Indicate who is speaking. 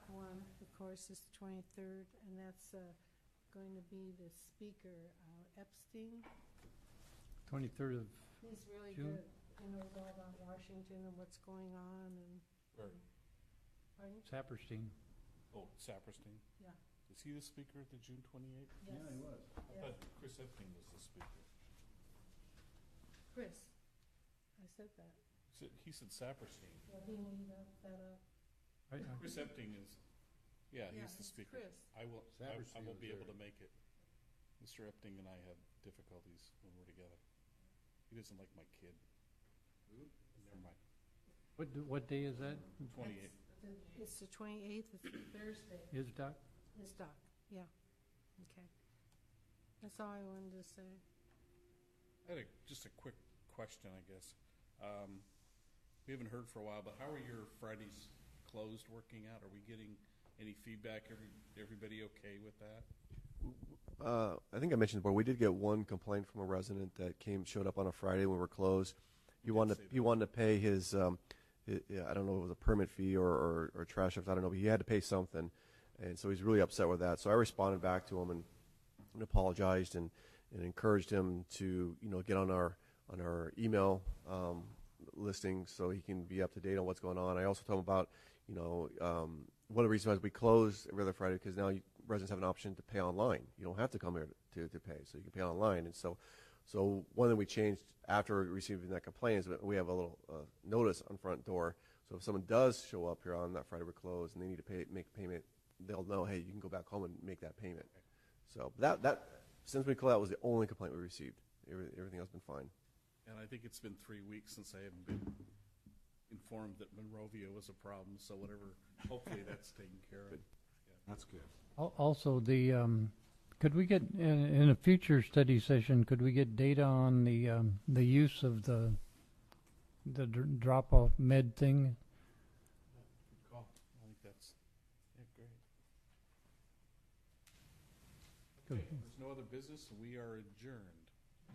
Speaker 1: course, is the 23rd, and that's uh, going to be the speaker, uh, Epstein.
Speaker 2: 23rd of,
Speaker 1: He's really
Speaker 2: June?
Speaker 1: good, he knows all about Washington and what's going on, and,
Speaker 3: Or,
Speaker 1: pardon?
Speaker 2: Saperstein.
Speaker 3: oh, Saperstein?
Speaker 1: Yeah.
Speaker 3: Is he the speaker at the June twenty-eighth?
Speaker 1: Yes.
Speaker 4: was.
Speaker 1: Yeah.
Speaker 3: Chris Epstein was the speaker.
Speaker 1: Chris, I said that.
Speaker 3: So- He said Saperstein.
Speaker 1: Yeah, he made up that up.
Speaker 2: I- I-
Speaker 3: Chris Epstein is, yeah,
Speaker 1: Yeah,
Speaker 3: he's the
Speaker 1: it's
Speaker 3: speaker.
Speaker 1: Chris.
Speaker 3: I will, I I
Speaker 4: Saperstein
Speaker 3: won't
Speaker 4: was
Speaker 3: be able
Speaker 4: there.
Speaker 3: to make it. Mr. Epting and I have difficulties when we're together. He doesn't like my kid. Never mind.
Speaker 2: What, d- what day is that?
Speaker 3: Twenty-eighth.
Speaker 1: That's- It's the 28th, it's a Thursday.
Speaker 2: Is Doc?
Speaker 1: It's Doc, yeah, okay. That's all I wanted to say.
Speaker 3: I had a, just a quick question, I guess. Um, we haven't heard for a while, but how are your Fridays closed working out? Are we getting any feedback? Every, everybody okay with that?
Speaker 5: Uh, I think I mentioned before, we did get one complaint from a resident that came, showed up on a Friday when we were closed. He
Speaker 3: did
Speaker 5: wanted,
Speaker 3: say
Speaker 5: to- he
Speaker 3: that.
Speaker 5: wanted to pay his, um, i- i- I don't know, if it was a permit fee or, or, or trash, I don't know, but he had to pay something. And so he's really upset with that. So I responded back to him and, and apologized and, and encouraged him to, you know, get on our, on our email, um, listing so he can be up to date on what's going on. I also told him about, you know, um, one of the reasons why we close every other Friday because now you, residents have an option to pay online. You don't have to come here to, to pay, so you can pay online. And so, so one thing we changed after receiving that complaint is that we have a little uh, notice on front door. So if someone does show up here on that Friday we're closed and they need to pay make payment, they'll know, hey, you can go back home and make that payment. So that that since we closed, that was the only complaint we received. Every, everything else has been fine.
Speaker 3: And I think it's been three weeks since I haven't been informed that Monrovia was a problem, so whatever, hopefully that's taken care of.
Speaker 4: That's good.
Speaker 2: Al- Also, the, um, could we get, in, in a future study session, could we get data on the, um, the use of the, the dr- drop-off med thing?
Speaker 3: Good call. I think that's, yeah, great.
Speaker 2: Good.
Speaker 3: Okay, There's no other business. We are adjourned.